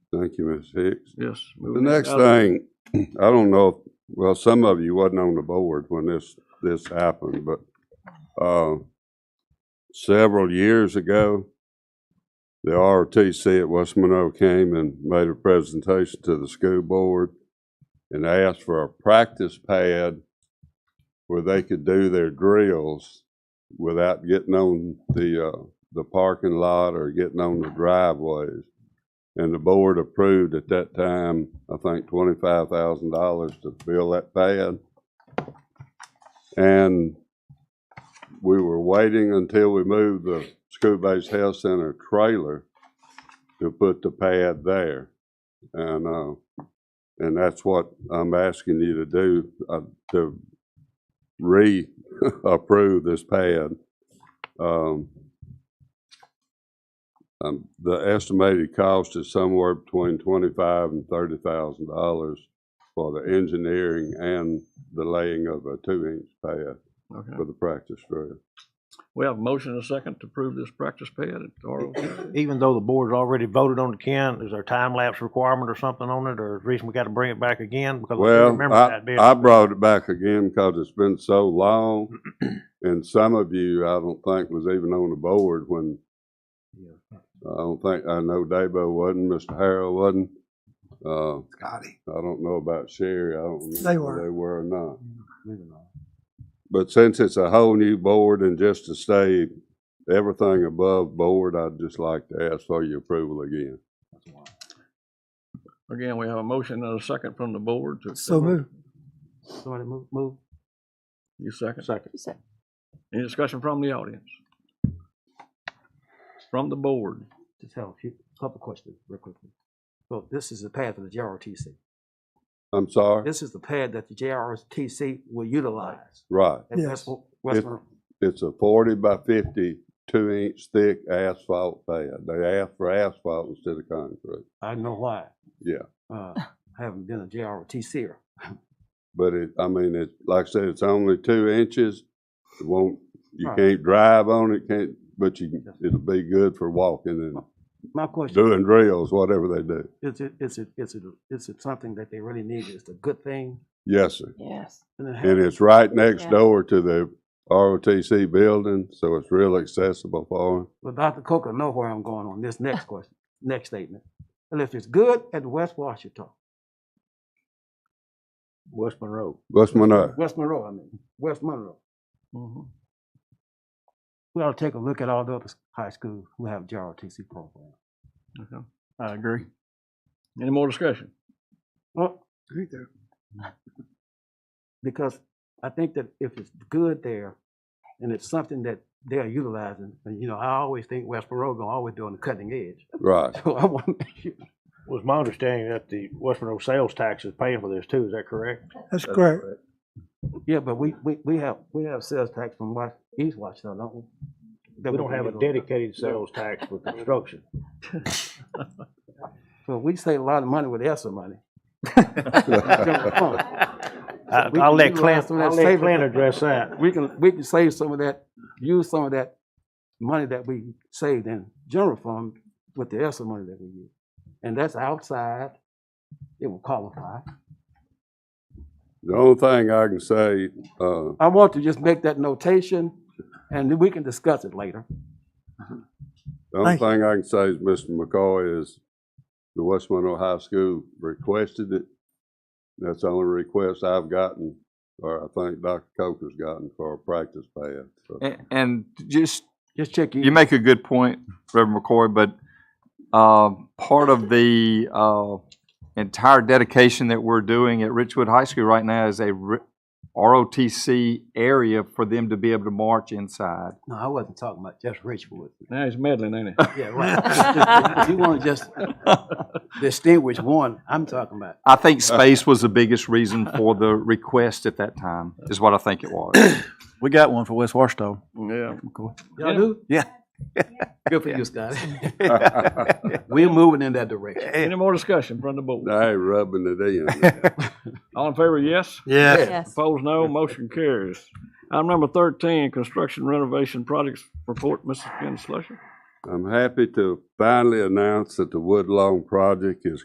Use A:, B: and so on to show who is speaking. A: Thank you, Ms. Hicks.
B: Yes.
A: The next thing, I don't know, if- well, some of you wasn't on the board when this, this happened, but, uh, several years ago, the ROTC at West Monroe came and made a presentation to the school board and asked for a practice pad where they could do their drills without getting on the, uh, the parking lot or getting on the driveways. And the board approved at that time, I think, twenty-five thousand dollars to fill that pad. And we were waiting until we moved the school-based health center trailer to put the pad there. And, uh, and that's what I'm asking you to do, uh, to re-approve this pad. Um, um, the estimated cost is somewhere between twenty-five and thirty thousand dollars for the engineering and the laying of a two-inch pad
B: Okay.
A: for the practice field.
B: We have a motion and a second to approve this practice pad at ROTC.
C: even though the board's already voted on the can, is there a time lapse requirement or something on it, or is the reason we gotta bring it back again? Because I do
A: Well,
C: remember
A: I,
C: that being.
A: I brought it back again because it's been so long, and some of you, I don't think, was even on the board when, I don't think, I know Dabo wasn't, Mr. Harrell wasn't, uh,
D: Scotty.
A: I don't know about Sherry, I don't know
D: They
A: if
D: were.
A: they were or not. But since it's a whole new board and just to stay everything above board, I'd just like to ask for your approval again.
B: Again, we have a motion and a second from the board to.
D: So moved.
C: Somebody move, move.
B: You second.
C: Second.
B: Any discussion from the audience? From the board?
E: Just have a few, couple questions real quickly. So this is the pad for the JRTC.
A: I'm sorry?
E: This is the pad that the JRTC will utilize.
A: Right.
E: at West-
D: Yes.
E: West
A: It-
E: Monroe.
A: It's a forty by fifty, two inch thick asphalt pad. They asked for asphalt instead of concrete.
E: I know why.
A: Yeah.
E: Uh, I haven't been a JRTCer.
A: But it, I mean, it, like I said, it's only two inches. It won't, you
E: Right.
A: can't drive on it, can't, but you, can- it'll be good for walking and
E: My question,
A: doing drills, whatever they do.
E: is it, is it, is it, is it something that they really need? Is it a good thing?
A: Yes, sir.
F: Yes.
E: And then
A: And
E: how-
A: it's right next
F: Yeah.
A: door to the ROTC building, so it's real accessible for them.
E: Well, Dr. Coker know where I'm going on this next question, next statement. And if it's good at West Washington,
C: West Monroe.
A: What's my name?
E: West Monroe, I mean, West Monroe,
B: Mhm.
E: we ought to take a look at all the other high schools who have JRTC programs.
B: Okay. I agree. Any more discussion?
E: Well, because I think that if it's good there, and it's something that they're utilizing, and you know, I always think West Monroe gonna always be on the cutting edge.
A: Right.
E: So I want to make sure.
C: Was my understanding that the West Monroe sales tax is paying for this too, is that correct?
D: That's correct.
E: Yeah, but we, we, we have, we have sales tax from West, East Washington, don't we? That
C: We don't have a
E: on.
C: dedicated sales tax for construction.
E: So we save a lot of money with ESSER money.
C: I,
E: We
C: I'll
E: can
C: let
E: utilize
C: Clint,
E: some of that
C: I'll let
E: savings.
C: Clint address that.
E: We can, we can save some of that, use some of that money that we saved in general fund with the ESSER money that we use. And that's outside, it will qualify.
A: The only thing I can say, uh,
E: I want to just make that notation, and then we can discuss it later.
A: the only
D: Thank you.
A: thing I can say is Mr. McCoy is the West Monroe High School requested it. That's the only request I've gotten, or I think Dr. Coker's gotten for a practice pad. So
G: A- And just,
E: Just check
G: you
E: you.
G: make a good point, Reverend McCoy, but um, part of the uh, entire dedication that we're doing at Richwood High School right now is a re- ROTC area for them to be able to march inside.
E: No, I wasn't talking about just Richwood.
B: Now he's meddling, ain't he?
E: Yeah, right. You want to just distinguish one, I'm talking about.
G: I think space was the biggest reason for the request at that time, is what I think it was.
H: We got one for West Washington.
B: Yeah.
E: Y'all do?
H: Yeah.
E: Good for you, Scott. We're moving in that direction.
B: Any more discussion from the board?
A: They rubbing it in.
B: All in favor, yes?
H: Yeah.
F: Yes.
B: Opposed, no. Motion carries. Item number thirteen, construction renovation projects report, Mrs. Ken Slusher.
A: I'm happy to finally announce that the Woodlawn project is